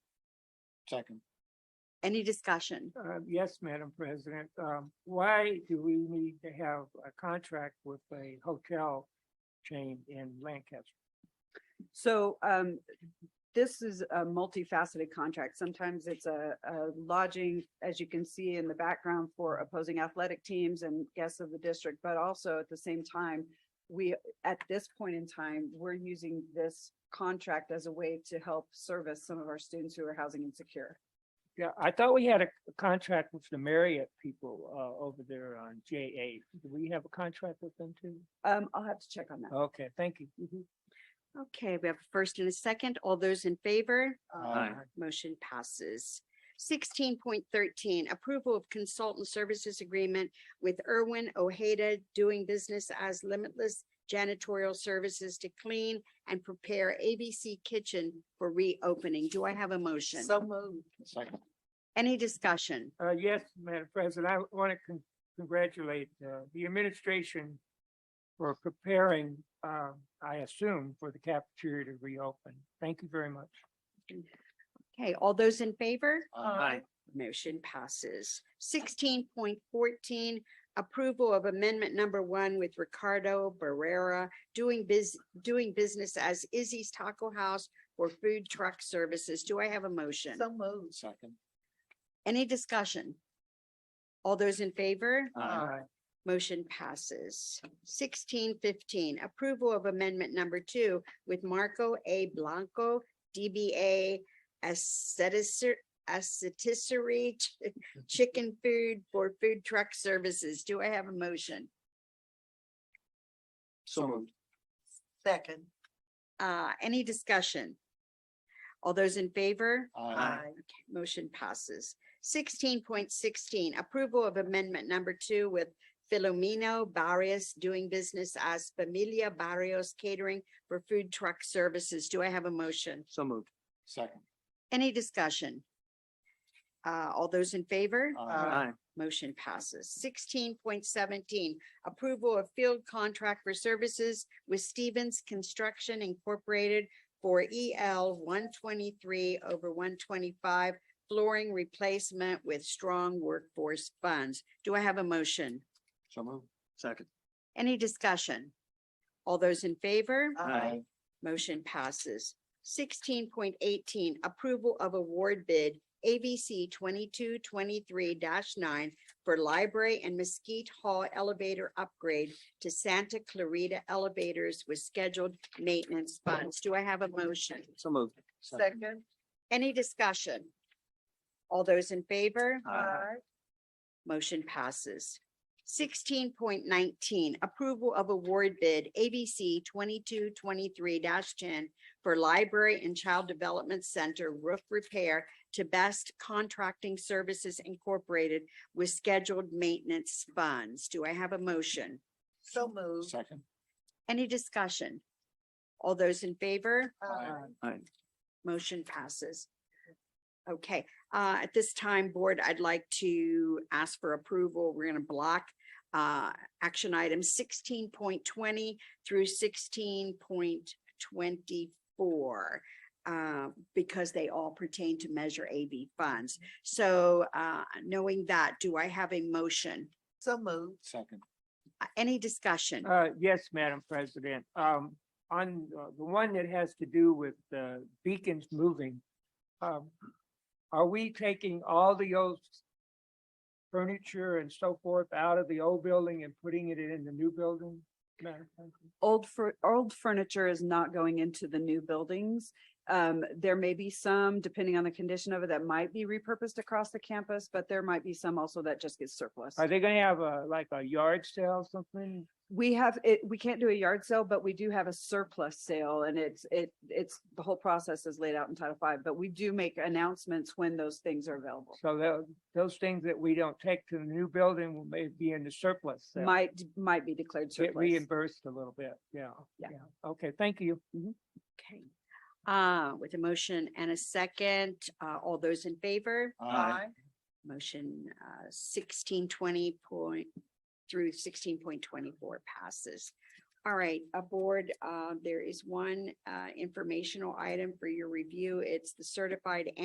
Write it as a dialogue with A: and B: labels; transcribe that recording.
A: Second.
B: Any discussion?
C: Uh, yes, Madam President, um, why do we need to have a contract with a hotel chain in Lancaster?
D: So um, this is a multifaceted contract. Sometimes it's a a lodging, as you can see in the background for opposing athletic teams and guests of the district, but also at the same time, we, at this point in time, we're using this contract as a way to help service some of our students who are housing insecure.
C: Yeah, I thought we had a a contract with the Marriott people, uh, over there on J eight. Do we have a contract with them too?
D: Um, I'll have to check on that.
C: Okay, thank you.
B: Okay, we have a first and a second. All those in favor?
A: Aye.
C: Uh,
B: Motion passes. Sixteen point thirteen, approval of consultant services agreement with Irwin Ojeda doing business as Limitless Janitorial Services to clean and prepare ABC Kitchen for reopening. Do I have a motion?
D: So moved.
A: Second.
B: Any discussion?
C: Uh, yes, Madam President, I want to congratulate, uh, the administration for preparing, uh, I assume, for the cafeteria to reopen. Thank you very much.
B: Okay, all those in favor?
A: Aye.
B: Motion passes. Sixteen point fourteen, approval of amendment number one with Ricardo Barrera doing biz, doing business as Izzy's Taco House for food truck services. Do I have a motion?
D: So moved.
A: Second.
B: Any discussion? All those in favor?
A: Aye.
D: Uh,
C: Aye.
B: Motion passes. Sixteen fifteen, approval of amendment number two with Marco A. Blanco, DBA Asceticer, Asceticery Ch- Chicken Food for Food Truck Services. Do I have a motion?
A: So moved.
D: Second.
B: Uh, any discussion? All those in favor?
A: Aye.
B: Motion passes. Sixteen point sixteen, approval of amendment number two with Filomeno Barrios doing business as Familia Barrios Catering for Food Truck Services. Do I have a motion?
A: So moved. Second.
B: Any discussion? Uh, all those in favor?
A: Aye.
B: Motion passes. Sixteen point seventeen, approval of field contract for services with Stevens Construction Incorporated for EL one twenty-three over one twenty-five flooring replacement with strong workforce funds. Do I have a motion?
A: So moved. Second.
B: Any discussion? All those in favor? Motion passes. Sixteen point eighteen, approval of award bid ABC twenty-two twenty-three nine for library and Mesquite Hall elevator upgrade to Santa Clarita elevators with scheduled maintenance funds. Do I have a motion?
A: So moved.
D: Second.
B: Any discussion? All those in favor?
A: Aye.
B: Motion passes. Sixteen point nineteen, approval of award bid ABC twenty-two twenty-three ten for Library and Child Development Center roof repair to Best Contracting Services Incorporated with scheduled maintenance funds. Do I have a motion?
D: So moved.
A: Second.
B: Any discussion? All those in favor?
A: Aye.
B: Motion passes. Okay, uh, at this time, board, I'd like to ask for approval. We're gonna block uh, action items sixteen point twenty through sixteen point twenty-four uh, because they all pertain to Measure AB funds. So, uh, knowing that, do I have a motion?
D: So moved.
A: Second.
B: Uh, Any discussion?
C: Uh, yes, Madam President, um, on uh, the one that has to do with the beacons moving. Um, are we taking all the old furniture and so forth out of the old building and putting it in the new building? Madam President?
D: Old fur, old furniture is not going into the new buildings. Um, there may be some, depending on the condition of it, that might be repurposed across the campus, but there might be some also that just gets surplus.
C: Are they gonna have a, like a yard sale, something?
D: We have it, we can't do a yard sale, but we do have a surplus sale and it's, it, it's, the whole process is laid out in Title Five, but we do make announcements when those things are available.
C: So tho- those things that we don't take to the new building will may be in the surplus. sale.
D: Might, might be declared
C: Get
D: surplus.
C: reimbursed a little bit, yeah.
D: Yeah.
C: Okay, thank you.
B: Okay. Uh, with a motion and a second, uh, all those in favor? Motion uh sixteen twenty point through sixteen point twenty-four passes. All right, aboard, uh, there is one uh informational item for your review. It's the certified